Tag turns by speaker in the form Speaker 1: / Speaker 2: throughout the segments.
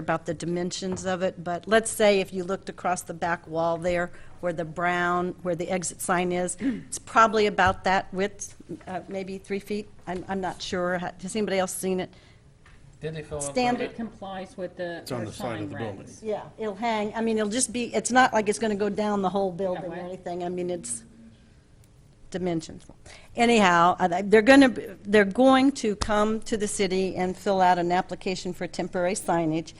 Speaker 1: about the dimensions of it, but let's say if you looked across the back wall there, where the brown, where the exit sign is, it's probably about that width, uh, maybe three feet. I'm, I'm not sure. Ha- Has anybody else seen it?
Speaker 2: Did they fill out? the
Speaker 1: Standard
Speaker 2: permit?
Speaker 3: It complies with the,
Speaker 4: on
Speaker 3: the
Speaker 4: the side
Speaker 3: sign
Speaker 4: of the building.
Speaker 3: regs.
Speaker 1: Yeah, it'll hang, I mean, it'll just be, it's not like it's going to go down the whole building or
Speaker 3: right.
Speaker 1: anything, I mean, it's dimensions. Anyhow, I- they're going to, they're going to come to the city and fill out an application for temporary signage,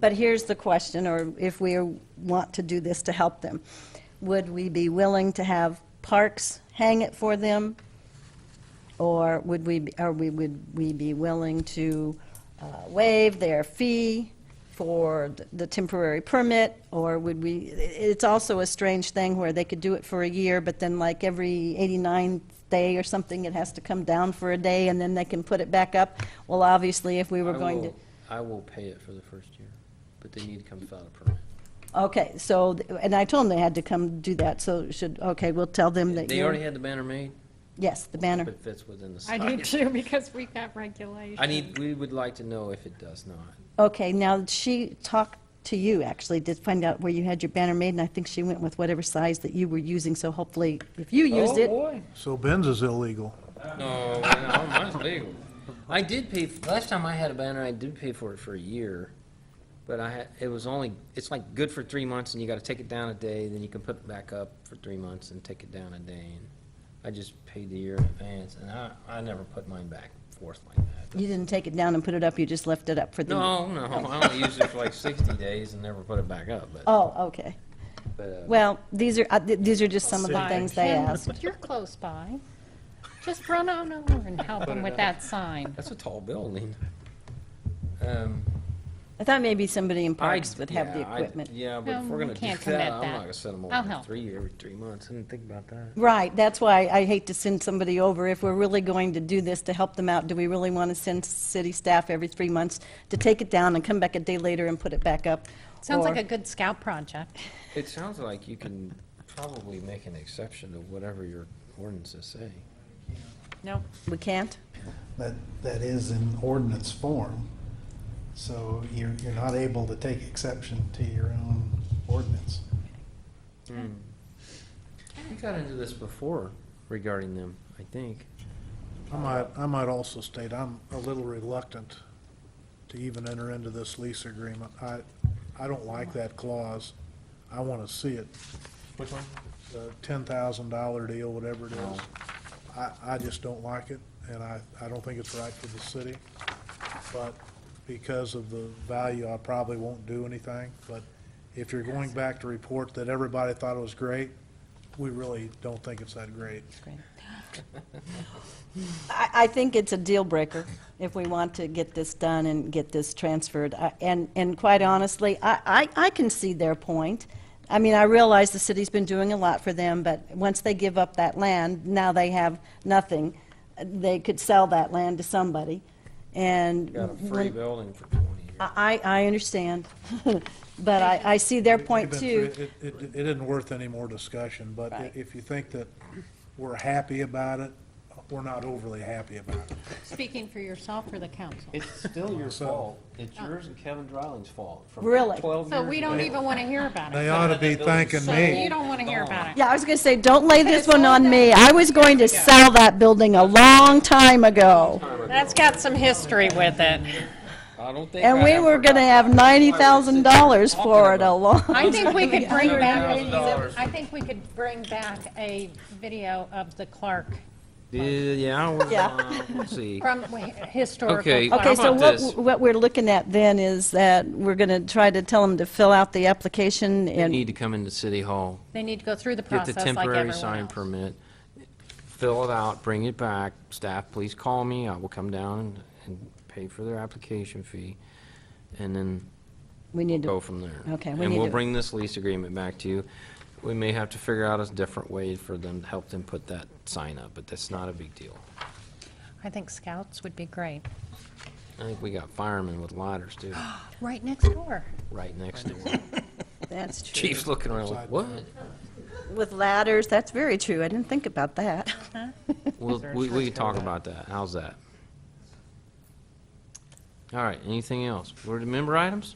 Speaker 1: but here's the question, or if we want to do this to help them, would we be willing to have parks hang it for them? Or would we, be- or we, would we be willing to uh, waive their fee for th- the temporary permit? Or would we, i- it's also a strange thing where they could do it for a year, but then like every 89th day or something, it has to come down for a day, and then they can put it back up. Well, obviously, if we were
Speaker 2: I
Speaker 1: going to.
Speaker 2: will- I will pay it for the first year, but they need to come fill out a permit.
Speaker 1: Okay, so, th- and I told them they had to come do that, so should, okay, we'll tell them that
Speaker 2: They
Speaker 1: you're-
Speaker 2: already had the banner made,
Speaker 1: Yes, the banner.
Speaker 2: but fits within the
Speaker 3: I do
Speaker 2: size.
Speaker 3: too, because we've got regulations.
Speaker 2: I need, we would like to know if it does not.
Speaker 1: Okay, now, she talked to you, actually, to find out where you had your banner made, and I think she went with whatever size that you were using, so hopefully, if you used it.
Speaker 2: Oh, boy.
Speaker 4: So Ben's is illegal.
Speaker 2: No, no, mine's legal. I did pay, last time I had a banner, I did pay for it for a year, but I had, it was only, it's like good for three months and you gotta take it down a day, then you can put it back up for three months and take it down a day. and I just paid the year in advance and I, I never put mine back forth like that.
Speaker 1: You didn't take it down and put it up, you just left it up for the.
Speaker 2: No, no, I only used it for like sixty days and never put it back up, but,
Speaker 1: Oh, okay.
Speaker 2: but, uh,
Speaker 1: Well, these are, uh, th- these are just some of the things they
Speaker 3: Kim,
Speaker 1: asked.
Speaker 3: You're close by. Just run on over and help them with that sign.
Speaker 2: that's a tall building. Um,
Speaker 1: I thought maybe somebody in parks
Speaker 2: I'd-
Speaker 1: would have the
Speaker 2: yeah, I'd-
Speaker 1: equipment.
Speaker 2: Yeah, but if
Speaker 3: Um,
Speaker 2: we're
Speaker 3: we
Speaker 2: gonna do
Speaker 3: can't
Speaker 2: that,
Speaker 3: commit
Speaker 2: I'm
Speaker 3: that.
Speaker 2: not gonna send them
Speaker 3: I'll
Speaker 2: over for
Speaker 3: help.
Speaker 2: three, every three months, I didn't think about that.
Speaker 1: Right, that's why I hate to send somebody over, if we're really going to do this to help them out, do we really want to send city staff every three months to take it down and come back a day later and put it back up?
Speaker 3: Sounds like
Speaker 1: Or-
Speaker 3: a good scout project.
Speaker 2: It sounds like you can probably make an exception to whatever your ordinances say.
Speaker 3: No.
Speaker 1: We can't?
Speaker 5: that, that is in ordinance form. So you're, you're not able to take exception to your own ordinance.
Speaker 2: Hmm. We got into this before regarding them, I think.
Speaker 4: I might, I might also state, I'm a little reluctant to even enter into this lease agreement. I, I don't like that clause. I want to see it.
Speaker 2: Which one? Oh.
Speaker 4: The ten thousand dollar deal, whatever it is. I, I just don't like it, and I, I don't think it's right for the city. But because of the value, I probably won't do anything. But if you're going back to report that everybody thought it was great, we really don't think it's that great.
Speaker 1: I, I think it's a deal breaker if we want to get this done and get this transferred. I- And, and quite honestly, I, I, I can see their point. I mean, I realize the city's been doing a lot for them, but once they give up that land, now they have nothing. They could sell that land to somebody, and.
Speaker 2: Got a free
Speaker 1: when-
Speaker 2: building for twenty years.
Speaker 1: I, I I understand, but I, I see their point
Speaker 4: We've
Speaker 1: too.
Speaker 4: been through- It, it, it isn't worth any more discussion, but i-
Speaker 1: Right.
Speaker 4: if you think that we're happy about it, we're not overly happy about it.
Speaker 3: Speaking for yourself or the council.
Speaker 2: It's still your
Speaker 4: So-
Speaker 2: fault. It's yours and Kevin Dryling's fault. from
Speaker 1: Really?
Speaker 2: 12
Speaker 3: So
Speaker 2: years
Speaker 3: we don't
Speaker 1: e-
Speaker 2: ago.
Speaker 3: even want to hear about
Speaker 4: They
Speaker 3: it.
Speaker 4: ought to be thanking
Speaker 3: So you
Speaker 4: me.
Speaker 3: don't want to hear about it.
Speaker 1: Yeah, I was going to say, don't lay this
Speaker 3: it's
Speaker 1: one
Speaker 3: all
Speaker 1: on
Speaker 3: done.
Speaker 1: me. I was going to sell that building a long time ago.
Speaker 3: That's got some history with it.
Speaker 2: I don't think.
Speaker 1: And
Speaker 2: I
Speaker 1: we
Speaker 2: ever
Speaker 1: were gonna
Speaker 2: got
Speaker 1: have
Speaker 2: that.
Speaker 1: ninety thousand dollars for it alone.
Speaker 3: I think we could bring back,
Speaker 2: $7,000.
Speaker 3: I think we could bring back a video of the Clark
Speaker 2: Yeah, Yeah, well,
Speaker 1: oh. Yeah.
Speaker 2: uh, let's see.
Speaker 3: from historical
Speaker 2: Okay.
Speaker 3: Clark.
Speaker 1: Okay, so
Speaker 2: about
Speaker 1: what,
Speaker 2: this?
Speaker 1: what we're looking at then is that we're gonna try to tell them to fill out the application
Speaker 2: They
Speaker 1: and,
Speaker 2: need to come into City Hall,
Speaker 3: They need to go through the
Speaker 2: get the
Speaker 3: process like everyone
Speaker 2: temporary sign
Speaker 3: else.
Speaker 2: permit, fill it out, bring it back. Staff, please call me. I will come down and- and pay for their application fee. And then
Speaker 1: we need
Speaker 2: go
Speaker 1: to,
Speaker 2: from there.
Speaker 1: Okay, we
Speaker 2: And
Speaker 1: need
Speaker 2: we'll
Speaker 1: to-
Speaker 2: bring this lease agreement back to you. We may have to figure out a different way for them, to help them put that sign up, but that's not a big deal.
Speaker 3: I think scouts would be great.
Speaker 2: I think we got firemen with ladders too,
Speaker 3: Right next door.
Speaker 2: right next to them.
Speaker 1: that's true.
Speaker 2: Chief's looking around like, what?
Speaker 1: With ladders, that's very true. I didn't think about that.
Speaker 2: We'll, we, we can talk about that. How's that? All right, anything else? Board member items?